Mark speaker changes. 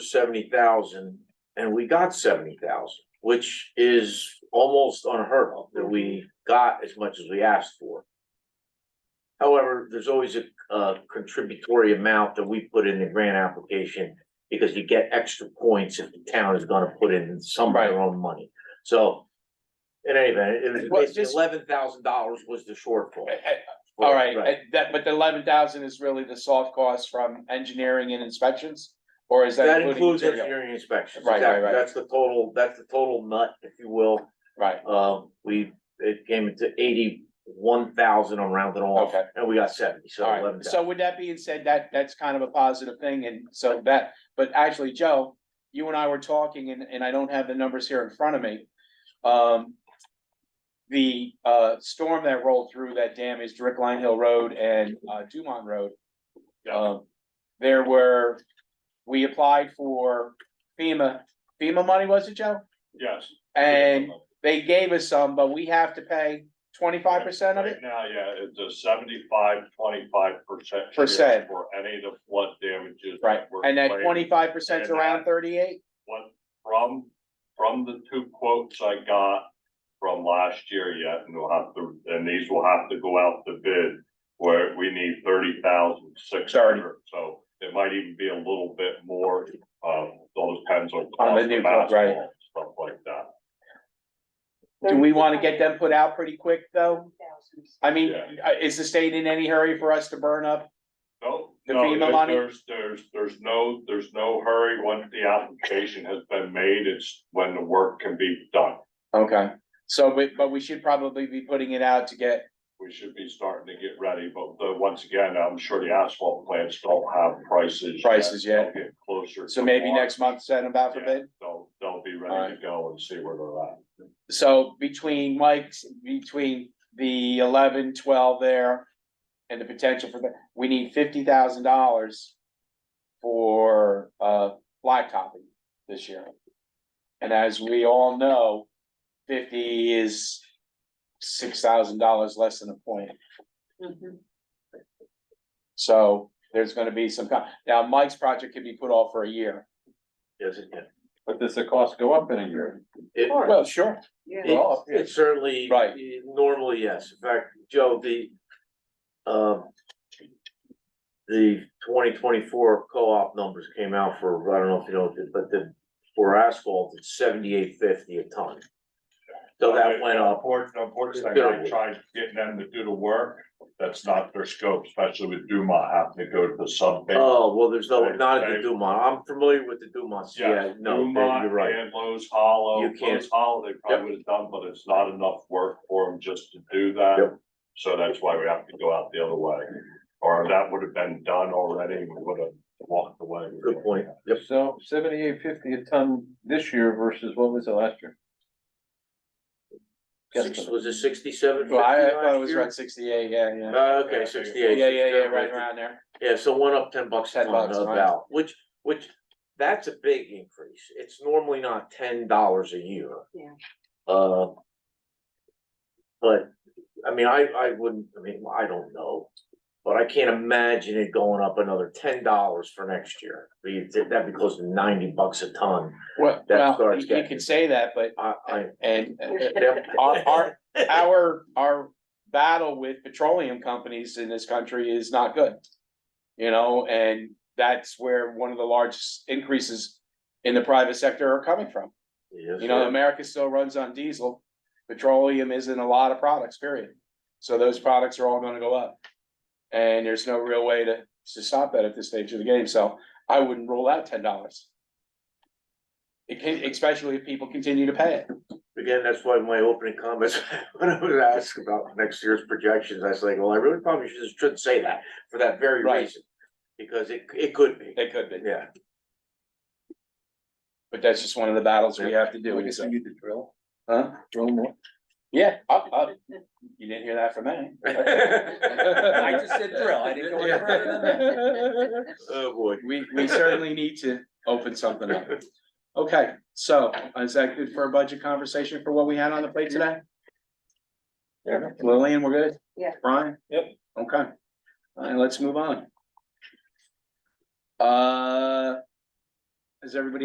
Speaker 1: seventy thousand and we got seventy thousand, which is almost unheard of that we
Speaker 2: Mm-hmm.
Speaker 1: got as much as we asked for. However, there's always a, uh contributory amount that we put in the grant application because you get extra points if the town is gonna put in some of their own money. So in any event, it was
Speaker 2: Well,
Speaker 1: basically
Speaker 2: just-
Speaker 1: eleven thousand dollars was the shortfall.
Speaker 2: Uh, uh, All right, uh, that, but the eleven thousand is really the soft cost from engineering and inspections? Or is that
Speaker 1: That
Speaker 2: including
Speaker 1: includes
Speaker 2: material?
Speaker 1: engineering inspections,
Speaker 2: Right, right,
Speaker 1: exactly,
Speaker 2: right.
Speaker 1: that's the total, that's the total nut, if you will.
Speaker 2: Right,
Speaker 1: Uh, we, it came into eighty-one thousand, I'm rounding off,
Speaker 2: okay,
Speaker 1: and we got seventy, so
Speaker 2: all
Speaker 1: eleven
Speaker 2: right.
Speaker 1: thousand.
Speaker 2: So with that being said, that, that's kind of a positive thing and so that, but actually, Joe, you and I were talking and, and I don't have the numbers here in front of me. Um, the, uh, storm that rolled through that damaged Rick Line Hill Road and, uh, Dumont Road. Um, there were, we applied for FEMA, FEMA money, was it, Joe?
Speaker 3: Yes.
Speaker 2: And they gave us some, but we have to pay twenty-five percent of it?
Speaker 3: Right now, yeah, it's a seventy-five, twenty-five percent.
Speaker 2: Percent.
Speaker 3: For any of the flood damages. that
Speaker 2: Right,
Speaker 3: were
Speaker 2: and that
Speaker 3: claimed.
Speaker 2: twenty-five percent's
Speaker 3: And
Speaker 2: around
Speaker 3: that-
Speaker 2: thirty-eight?
Speaker 3: What, from, from the two quotes I got from last year yet, and we'll have to, and these will have to go out to bid. Where we need thirty thousand six hundred, so it might even be a little bit more, um, all depends on.
Speaker 2: On the
Speaker 3: cost
Speaker 2: new
Speaker 3: of
Speaker 2: quote, right.
Speaker 3: asphalt, Stuff like that,
Speaker 2: Do we wanna get them put out pretty quick, though? I mean,
Speaker 3: Yeah.
Speaker 2: uh, is the state in any hurry for us to burn up?
Speaker 3: No,
Speaker 2: The
Speaker 3: no,
Speaker 2: FEMA
Speaker 3: there-
Speaker 2: money?
Speaker 3: there's, there's, there's no, there's no hurry. Once the application has been made, it's when the work can be done.
Speaker 2: Okay. So, but, but we should probably be putting it out to get,
Speaker 3: We should be starting to get ready, but the, once again, I'm sure the asphalt plants don't have prices. yet.
Speaker 2: Prices yet.
Speaker 3: They'll Get closer.
Speaker 2: so
Speaker 3: to
Speaker 2: maybe
Speaker 3: March.
Speaker 2: next month, send them out for
Speaker 3: Yeah,
Speaker 2: bid?
Speaker 3: They'll, they'll be ready
Speaker 2: Alright.
Speaker 3: to go and see where they're at.
Speaker 2: So between Mike's, between the eleven, twelve there and the potential for that, we need fifty thousand dollars for uh blacktopping this year. And as we all know, fifty is six thousand dollars less than a point. So there's gonna be some, co- now Mike's project could be put off for a year.
Speaker 1: Yes, it can.
Speaker 3: But does the cost go up in a year?
Speaker 1: It-
Speaker 2: Well, sure.
Speaker 1: It,
Speaker 2: Well,
Speaker 1: it certainly.
Speaker 2: Right.
Speaker 1: Normally, yes. In fact, Joe, the, um, the twenty twenty-four co-op numbers came out for, I don't know if you know, but the, for asphalt, it's seventy-eight fifty a ton. So that went up.
Speaker 3: Unfortunately, I tried getting them to do the work. That's not their scope, especially with Dumont having to go to the sub.
Speaker 1: Oh, well, there's no,
Speaker 3: Right,
Speaker 1: not at the
Speaker 3: right.
Speaker 1: Dumont. I'm familiar with the Dumonts. Yeah,
Speaker 3: Yes,
Speaker 1: no, then
Speaker 3: Dumont
Speaker 1: you're right.
Speaker 3: And Lowe's Hollow,
Speaker 1: You can't-
Speaker 3: Lowe's Hollow, they probably would have done, but it's not enough work for them just to do that.
Speaker 1: Yep.
Speaker 3: So that's why we have to go out the other way, or that would have been done already, we would have walked away.
Speaker 1: Good point. Yep.
Speaker 4: So seventy-eight fifty a ton this year versus what was it last year?
Speaker 1: Six, was it sixty-seven fifty
Speaker 2: Well, I I thought it
Speaker 1: last
Speaker 2: was
Speaker 1: year?
Speaker 2: around sixty-eight, yeah, yeah.
Speaker 1: Uh, okay, sixty-eight.
Speaker 2: Yeah, yeah, yeah,
Speaker 1: 67,
Speaker 2: right around there.
Speaker 1: Yeah, so one up ten bucks a
Speaker 2: 10
Speaker 1: ton
Speaker 2: bucks,
Speaker 1: no
Speaker 2: right.
Speaker 1: doubt, which, which, that's a big increase. It's normally not ten dollars a year.
Speaker 5: Yeah.
Speaker 1: Uh. But, I mean, I, I wouldn't, I mean, I don't know, but I can't imagine it going up another ten dollars for next year. I mean, That'd be close to ninety bucks a ton.
Speaker 2: Well,
Speaker 1: That
Speaker 2: well,
Speaker 1: starts
Speaker 2: you you
Speaker 1: getting-
Speaker 2: could say that, but,
Speaker 1: I, I.
Speaker 2: and uh,
Speaker 1: yep.
Speaker 2: our, our, our, our battle with petroleum companies in this country is not good. You know, and that's where one of the largest increases in the private sector are coming from.
Speaker 1: Yes,
Speaker 2: You know,
Speaker 1: sir.
Speaker 2: America still runs on diesel. Petroleum is in a lot of products, period. So those products are all gonna go up. And there's no real way to, to stop that at this stage of the game, so I wouldn't rule out ten dollars. It can, especially if people continue to pay it.
Speaker 1: Again, that's why my opening comments, when I was asked about next year's projections, I was like, well, I really probably shouldn't, shouldn't say that for that very
Speaker 2: Right.
Speaker 1: reason. Because it, it could be,
Speaker 2: It could be,
Speaker 1: yeah.
Speaker 2: but that's just one of the battles we have to do.
Speaker 4: I guess
Speaker 2: so-
Speaker 4: we need to drill,
Speaker 2: Huh?
Speaker 4: drill more.
Speaker 2: Yeah, up, up. You didn't hear that from me.
Speaker 1: I
Speaker 4: said drill, I didn't
Speaker 1: go any further than
Speaker 5: that.
Speaker 1: Oh, boy.
Speaker 2: We, we certainly need to open something up. Okay, so is that good for a budget conversation for what we had on the plate today?
Speaker 4: Yeah.
Speaker 2: Lillian, we're good?
Speaker 5: Yeah.
Speaker 2: Brian?
Speaker 4: Yep.
Speaker 2: Okay. All right, let's move on. Uh, Is everybody